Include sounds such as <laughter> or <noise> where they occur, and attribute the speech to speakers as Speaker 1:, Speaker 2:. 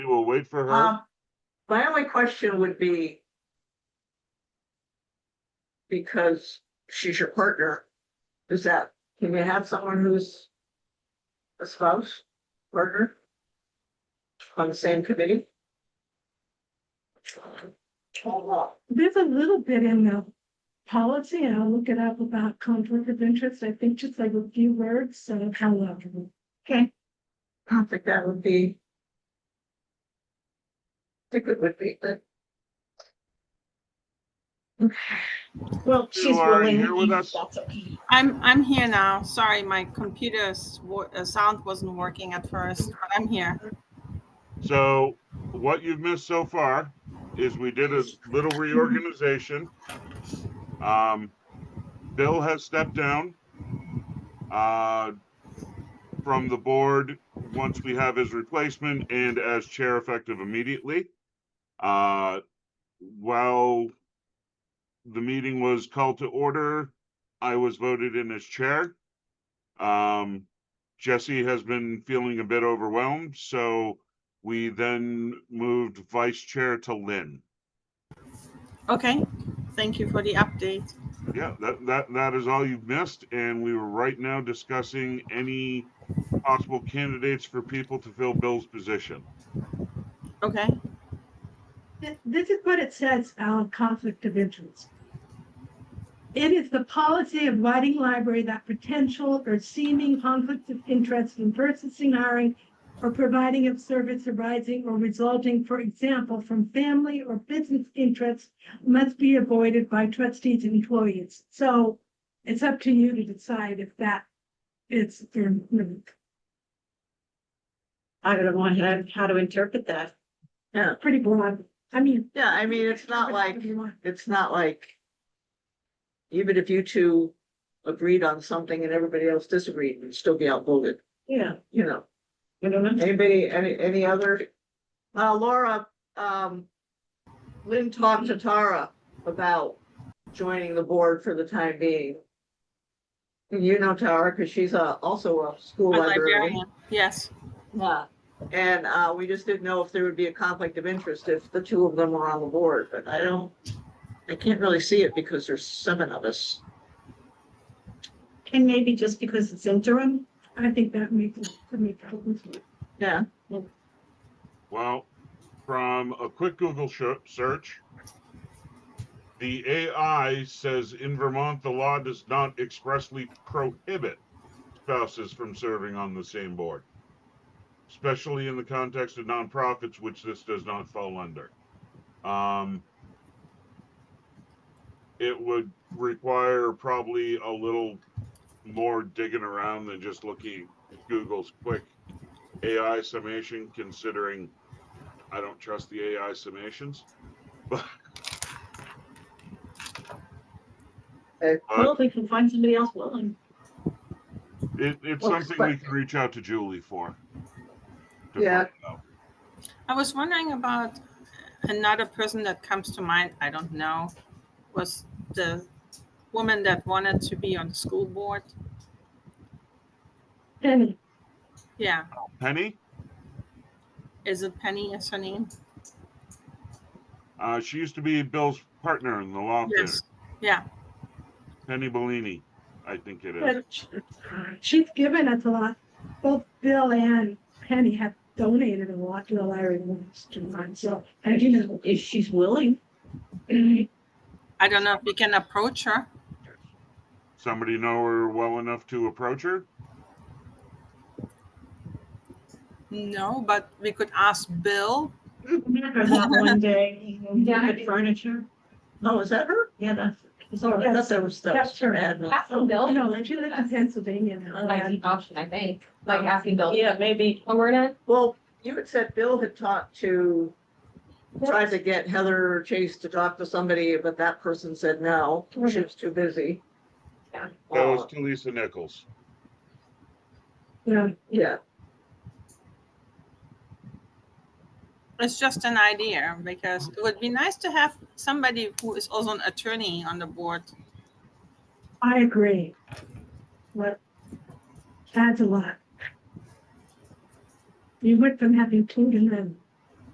Speaker 1: will wait for her.
Speaker 2: Um, my only question would be. Because she's your partner, is that, can you have someone who's a spouse, partner? On the same committee?
Speaker 3: There's a little bit in the policy, and I'll look it up about conflict of interest, I think just like a few words, so however.
Speaker 2: Okay. I don't think that would be. I think it would be, but.
Speaker 4: Well, she's
Speaker 1: are
Speaker 4: willing.
Speaker 1: here with us?
Speaker 4: That's okay.
Speaker 5: I'm I'm here now. Sorry, my computer's wo- uh, sound wasn't working at first, but I'm here.
Speaker 1: So what you've missed so far is we did a little reorganization. Um, Bill has stepped down uh, from the board once we have his replacement and as chair effective immediately. Uh, while the meeting was called to order, I was voted in as chair. Um, Jesse has been feeling a bit overwhelmed, so we then moved vice chair to Lynn.
Speaker 5: Okay, thank you for the update.
Speaker 1: Yeah, that, that, that is all you've missed, and we were right now discussing any possible candidates for people to fill Bill's position.
Speaker 5: Okay,
Speaker 3: Th- This is what it says, our conflict of interest. It is the policy of Whiting Library that potential or seeming conflicts of interest in purchasing, hiring, or providing of service arising or resulting, for example, from family or business interests must be avoided by trustees and employees. So it's up to you to decide if that is,
Speaker 4: I don't know how, how to interpret that.
Speaker 3: pretty broad. I mean.
Speaker 2: Yeah, I mean, it's not like.
Speaker 3: You want-
Speaker 2: it's not like. Even if you two agreed on something and everybody else disagreed, you'd still be outvoted,
Speaker 3: Yeah.
Speaker 2: you know,
Speaker 4: I don't know.
Speaker 2: anybody, any, any other? Uh, Laura, um, Lynn talked to Tara about joining the board for the time being. You know Tara, cause she's a, also a school
Speaker 5: a
Speaker 2: librarian.
Speaker 5: librarian. Yes.
Speaker 2: Yeah, and uh, we just didn't know if there would be a conflict of interest if the two of them were on the board, but I don't, I can't really see it because there's seven of us.
Speaker 4: And maybe just because it's interim,
Speaker 3: I think that makes, that makes sense.
Speaker 2: Yeah,
Speaker 1: Well, from a quick Google sho- search, the AI says in Vermont, the law does not expressly prohibit spouses from serving on the same board, especially in the context of nonprofits, which this does not fall under. Um, it would require probably a little more digging around than just looking at Google's quick AI summation, considering I don't trust the AI summations. But
Speaker 2: Uh,
Speaker 4: well, we can find somebody else willing.
Speaker 1: it, it's
Speaker 2: Well,
Speaker 1: something we can reach out to Julie for. to
Speaker 2: Yeah.
Speaker 1: find out.
Speaker 5: I was wondering about another person that comes to mind. I don't know. Was the woman that wanted to be on the school board?
Speaker 3: Penny,
Speaker 5: Yeah.
Speaker 1: Penny,
Speaker 5: Is it Penny? Is her name?
Speaker 1: uh, she used to be Bill's partner in the law
Speaker 5: Yes. Yeah.
Speaker 1: firm, Penny Bellini, I think it is.
Speaker 3: but she- she's given us a lot. Both Bill and Penny have donated a lot to the library in the last two months, so, and you know.
Speaker 4: If she's willing,
Speaker 5: I don't know if we can approach her.
Speaker 1: Somebody know her well enough to approach her?
Speaker 5: No, but we could ask Bill.
Speaker 4: remember
Speaker 2: <laughs>
Speaker 4: that one day, we had furniture,
Speaker 2: oh, is that her?
Speaker 4: yeah, that's. it's all
Speaker 2: Sorry, I
Speaker 4: right.
Speaker 2: thought that was, that was
Speaker 3: That's her.
Speaker 2: her admin.
Speaker 6: Aspen
Speaker 3: Oh,
Speaker 6: Bill,
Speaker 3: No, and she lives in Pennsylvania now.
Speaker 6: might be
Speaker 3: and-
Speaker 6: an option, I think, like Aspen Bill.
Speaker 4: Um, Yeah, maybe,
Speaker 6: When we're not,
Speaker 2: Well, you had said Bill had talked to, tried to get Heather or Chase to talk to somebody, but that person said no, she was too busy.
Speaker 6: Yeah.
Speaker 1: That was
Speaker 2: Uh,
Speaker 1: to Lisa Nichols.
Speaker 3: Yeah,
Speaker 2: Yeah,
Speaker 5: It's just an idea because it would be nice to have somebody who is also an attorney on the board.
Speaker 3: I agree. What, adds a lot. You went from having two to none.